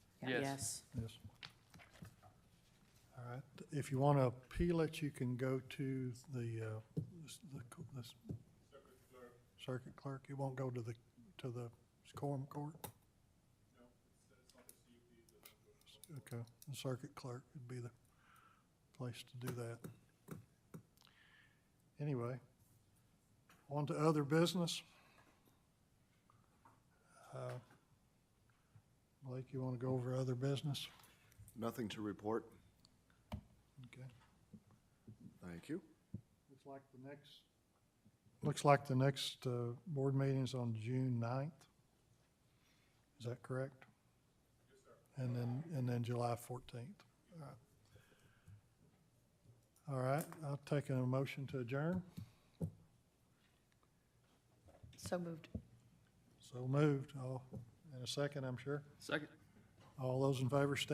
Yes. Yes. All right, if you want to appeal it, you can go to the, uh, this- the, co- this. Circuit clerk, it won't go to the, to the quorum court? Okay, the circuit clerk would be the place to do that. Anyway, on to other business. Uh, Blake, you want to go over other business? Nothing to report. Okay. Thank you. Looks like the next. Looks like the next, uh, board meeting's on June ninth. Is that correct? Yes, sir. And then, and then July fourteenth. All right, I'll take a motion to adjourn. So moved. So moved. All, in a second, I'm sure. Second. All those in favor, stand